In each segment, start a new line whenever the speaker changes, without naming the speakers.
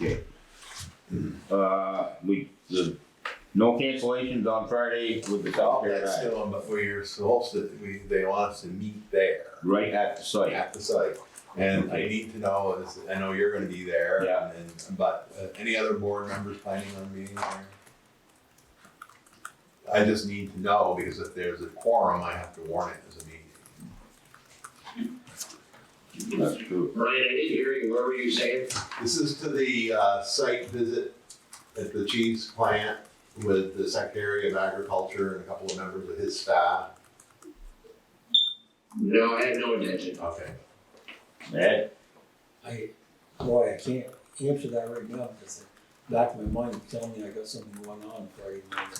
Okay. Uh, we, the, no cancellations on Friday with the South Bear
Oh, That's
Ride,
still on, but we're supposed to, we, they want us to meet there
right at the site.
at the site. And I need to know is, I know you're gonna be there.
Yeah.
And, but uh, any other board members planning on being there? I just need to know because if there's a quorum, I have to warn it as a meeting.
That's true.
Brian, I didn't hear you, what were you saying?
This is to the, uh, site visit at the cheese plant with the Secretary of Agriculture and a couple of members of his staff.
No, I had no intention.
Okay.
Ed,
I, boy, I can't answer that right now, because the back of my mind is telling me I got something going on Friday morning.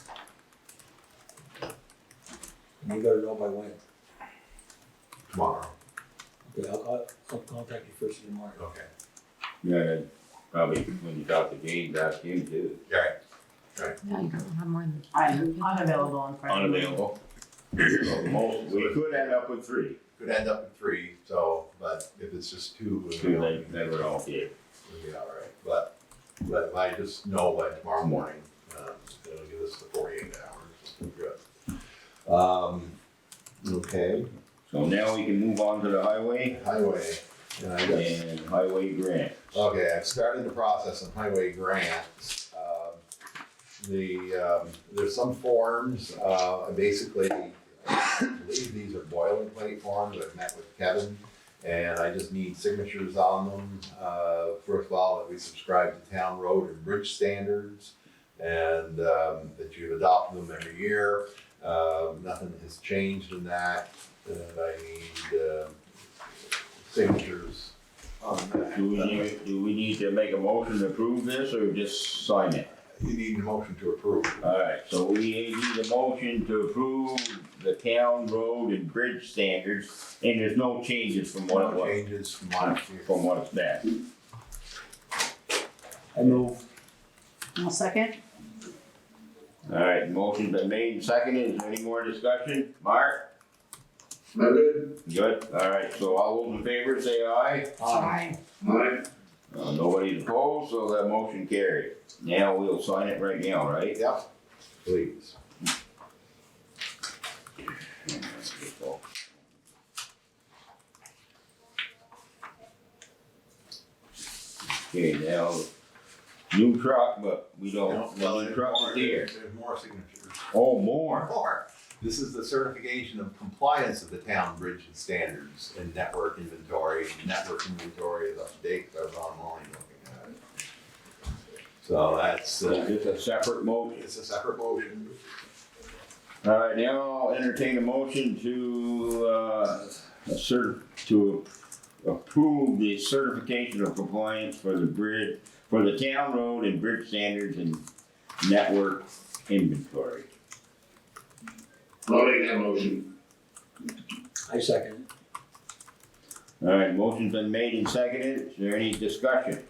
And you gotta know by when,
Tomorrow.
okay, I'll, I'll, I'll contact you first in the morning.
Okay.
yeah, Ed, probably when you talk to James, ask him too.
All right.
Yeah, you don't have more than.
I'm unavailable on Friday.
Unavailable. So the most- We could end up with three,
Could end up in three, so, but if it's just two, we'll be,
two,
we'll
then, then we're all good.
be all right. But, but if I just know by tomorrow morning, um, it'll give us the forty-eight hours. We'll do it. Um, okay,
So now we can move on to the highway
highway, and I guess.
and highway grant.
Okay, I've started the process on highway grants. Um, The, um, there's some forms, uh, basically, I believe these are boilerplate forms, I've met with Kevin, and I just need signatures on them. Uh, First of all, that we subscribe to town road and bridge standards, and um, that you adopt them every year. Um, Nothing has changed in that, and I need uh, signatures on that.
Do we need, do we need to make a motion to approve this or just sign it?
You need a motion to approve.
Alright, so we need a motion to approve the town road and bridge standards, and there's no changes from what it
No
was,
changes from last year.
from what it's been.
I move,
I'll second.
Alright, motion's been made and seconded, is there any more discussion? Mark?
I'm good.
Good, alright, so all those in favor say aye.
Ah,
Aye.
Alright,
Uh, nobody's opposed, so that motion carried. Now we'll sign it right now, right?
Yep. Please.
Okay, now, new truck, but we don't,
Well,
well, the
there's
truck
more-
is here.
There's more signatures.
Oh, more.
More. This is the certification of compliance of the town bridge and standards and network inventory. Network inventory is up to date, 'cause I was online looking at it. So that's,
So
uh,
Just a separate motion.
it's a separate motion.
All right, now I'll entertain a motion to, uh, cert, to approve the certification of compliance for the bridge, for the town road and bridge standards and network inventory.
I'll make that motion.
I second it.
All right, motion's been made and seconded. Is there any discussion?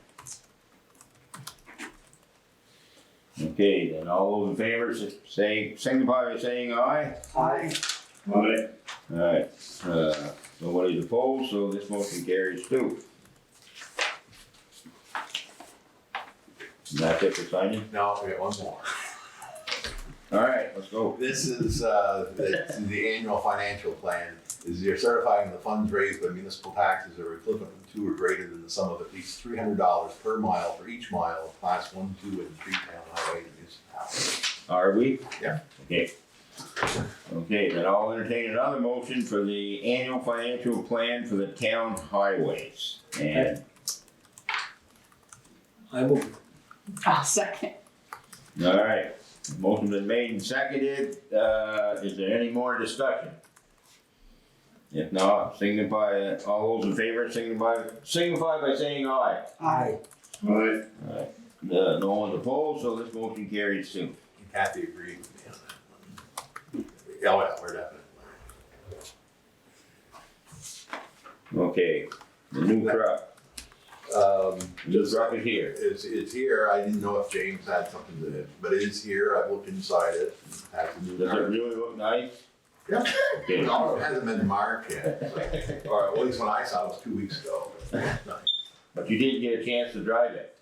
Okay, then all those in favor say, signify by saying aye.
Aye.
Alright,
All right, uh, nobody's opposed, so this motion carries too. And that's it for signing?
Now, we got one more.
All right, let's go.
This is, uh, it's the annual financial plan, is you're certifying the funds raised by municipal taxes are equivalent to or greater than the sum of at least three hundred dollars per mile for each mile of class one, two, and three town highway in municipality.
Are we?
Yeah.
Okay. Okay, then I'll entertain another motion for the annual financial plan for the town highways. And,
I move,
I'll second.
all right, motion been made and seconded. Uh, is there any more discussion? If not, signify, all those in favor, signify, signify by saying aye.
aye,
alright,
Alright, uh, no one's opposed, so this motion carries soon.
Kathy agreed with me on that one. Oh, yeah, we're definitely.
Okay, the new truck,
Um,
new truck is here.
it's, it's here, I didn't know if James had something to, but it is here, I've looked inside it, has a new
Does it
car.
really look nice?
Yeah.
Okay,
No, it hasn't been marked yet, so- or at least when I saw it was two weeks ago.
but you did get a chance to drive it.